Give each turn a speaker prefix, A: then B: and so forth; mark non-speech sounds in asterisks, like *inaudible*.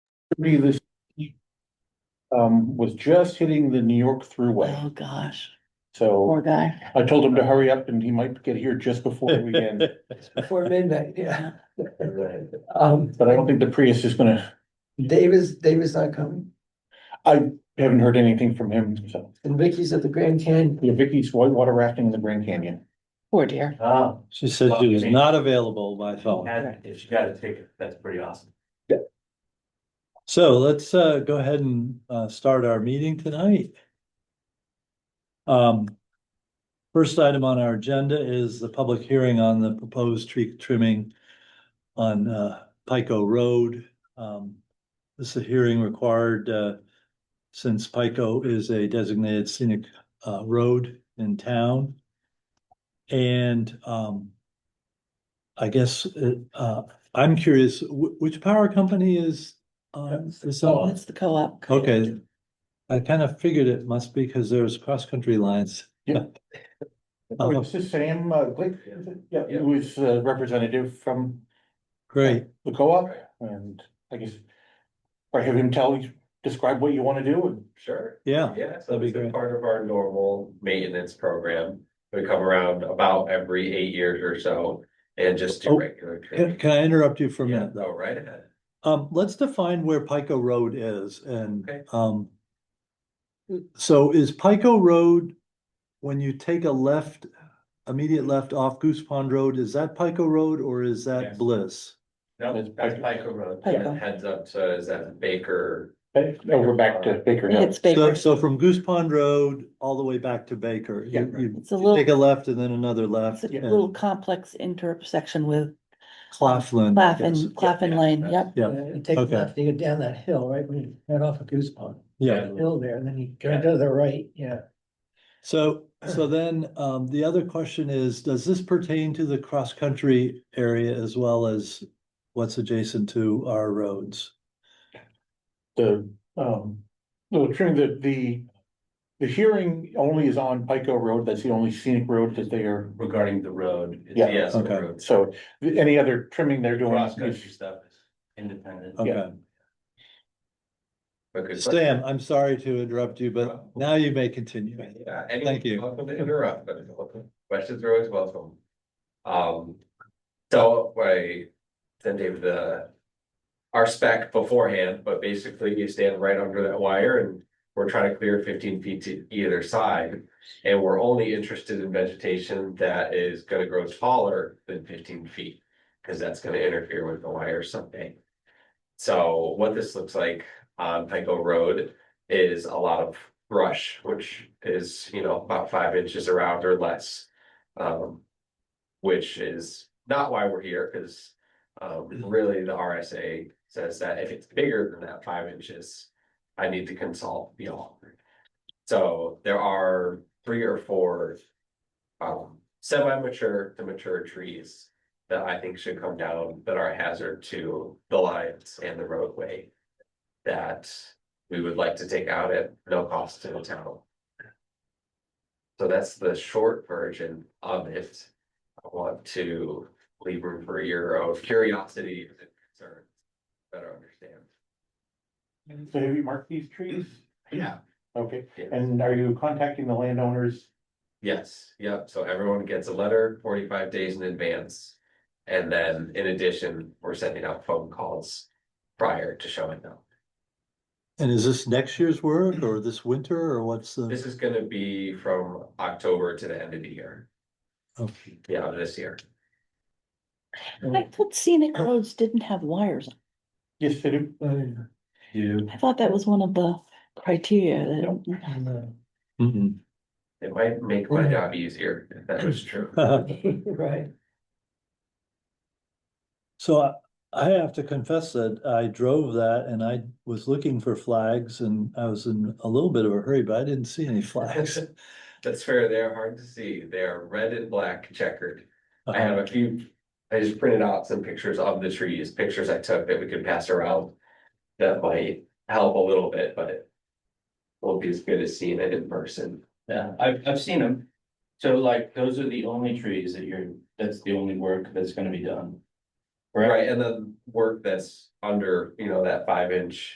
A: three this. week, Um, was just hitting the New York
B: Oh,
A: throughway,
B: gosh,
A: so
B: poor guy.
A: I told him to hurry up and he might get here just before we *laughs* end.
C: Before midnight, yeah.
D: Right.
C: *laughs* Um,
A: But I don't think the Prius is gonna,
C: Dave is, Dave is not coming,
A: I haven't heard anything from him, so.
C: and Vicky's at the Grand Canyon.
A: Yeah, Vicky's whitewater rafting in the Grand Canyon.
B: Poor dear.
E: Oh.
D: Ah,
E: She said she was not available by phone.
D: had- if she got a ticket, that's pretty awesome.
E: So let's uh go ahead and uh start our meeting tonight. Um. First item on our agenda is the public hearing on the proposed tree trimming on uh Pico Road. Um, this is a hearing required uh since Pico is a designated scenic uh road in town. And um. I guess uh, uh I'm curious, wh- which power company is um, this all,
B: That's the co-op.
E: okay. I kind of figured it must be because there's cross-country lines.
A: Oh, It's the same, uh, Glick, yeah, it was a representative from
E: Great,
A: the co-op and I guess. Or have him tell, you describe what you wanna do and
D: Sure.
E: yeah,
D: Yeah, so
E: That'd be
D: it's a
E: great.
D: part of our normal maintenance program. We come around about every eight years or so and just
E: Oh,
D: do regular.
E: can
D: trimming.
E: can I interrupt you for a
D: Yeah,
E: minute
D: Go
E: though?
D: right ahead.
E: Um, let's define where Pico Road is and,
D: Okay.
E: um. So is Pico Road, when you take a left, immediate left off Goose Pond Road, is that Pico Road or is that
D: Yes.
E: Bliss?
D: No,
A: That's
D: that's
A: Pico.
D: Pico Road,
B: Pico.
D: heads up to, is that Baker?
A: over back to Baker Hill.
B: It's
E: So,
B: Baker.
E: so from Goose Pond Road all the way back to Baker,
A: Yeah,
E: you,
A: right.
E: you
B: It's a
E: take a
B: little,
E: left and then another
B: it's
E: left
B: a
E: and
B: little complex intersection with
E: Claflin. yes.
B: Claffin, Claffin
D: yeah,
B: Lane,
D: that's-
B: yep.
E: Yeah.
C: Uh, You take
E: Okay.
C: left, you go down that hill, right, when you head off of Goose Pond,
E: Yeah,
C: hill there, and then you go to the right, yeah.
E: so, so then, um, the other question is, does this pertain to the cross-country area as well as what's adjacent to our roads?
A: the, um, the, trim- the, the. The hearing only is on Pico Road, that's the only scenic road that they are,
D: Regarding the road. it's
A: Yeah.
D: the Aspen
E: Okay.
D: Road.
A: so th- any other trimming they're doing.
D: Cross country
A: is-
D: stuff is independent.
E: Okay,
D: But good question. Uh-huh.
E: Sam, I'm sorry to interrupt you, but now you may continue.
D: Yeah, and
E: Thank you.
D: Welcome to interrupt, but questions are always welcome. Um, so I sent David the. Our spec beforehand, but basically you stand right under that wire and we're trying to clear fifteen feet to either side. And we're only interested in vegetation that is gonna grow taller than fifteen feet, cause that's gonna interfere with the wire someday. So what this looks like on Pico Road is a lot of brush, which is, you know, about five inches around or less. Um, which is not why we're here, because um, really the RSA says that if it's bigger than that five inches, I need to consult the owner. So there are three or four um, semi-mature to mature trees that I think should come down that are a hazard to the lines and the roadway. That we would like to take out at no cost to the town. So that's the short version of it. I want to leave room for your own curiosity and concerns. Better understand.
A: So have you marked these trees?
D: Yeah.
A: Okay, and are you contacting the landowners?
D: Yes, yep, so everyone gets a letter forty-five days in advance. And then in addition, we're sending out phone calls prior to showing up.
E: And is this next year's work or this winter or what's the?
D: This is gonna be from October to the end of the year,
E: okay.
D: yeah, of this year.
B: I thought scenic roads didn't have wires.
A: Yes, they do.
E: Oh,
D: You.
B: I thought that was one of the criteria that,
C: And, uh,
E: Mhm.
D: It might make my job easier if that was true.
C: *laughs* Right,
E: *laughs* So I, I have to confess that I drove that and I was looking for flags and I was in a little bit of a hurry, but I didn't see any flags.
D: That's fair, they're hard to see, they are red and black checkered. *laughs* I have a few, I just printed out some pictures of the trees, pictures I took that we could pass around. That might help a little bit, but it won't be as good as seeing it in person.
F: Yeah, I've, I've seen them. So like, those are the only trees that you're, that's the only work that's gonna be done.
D: Right, and then work that's under, you know, that five inch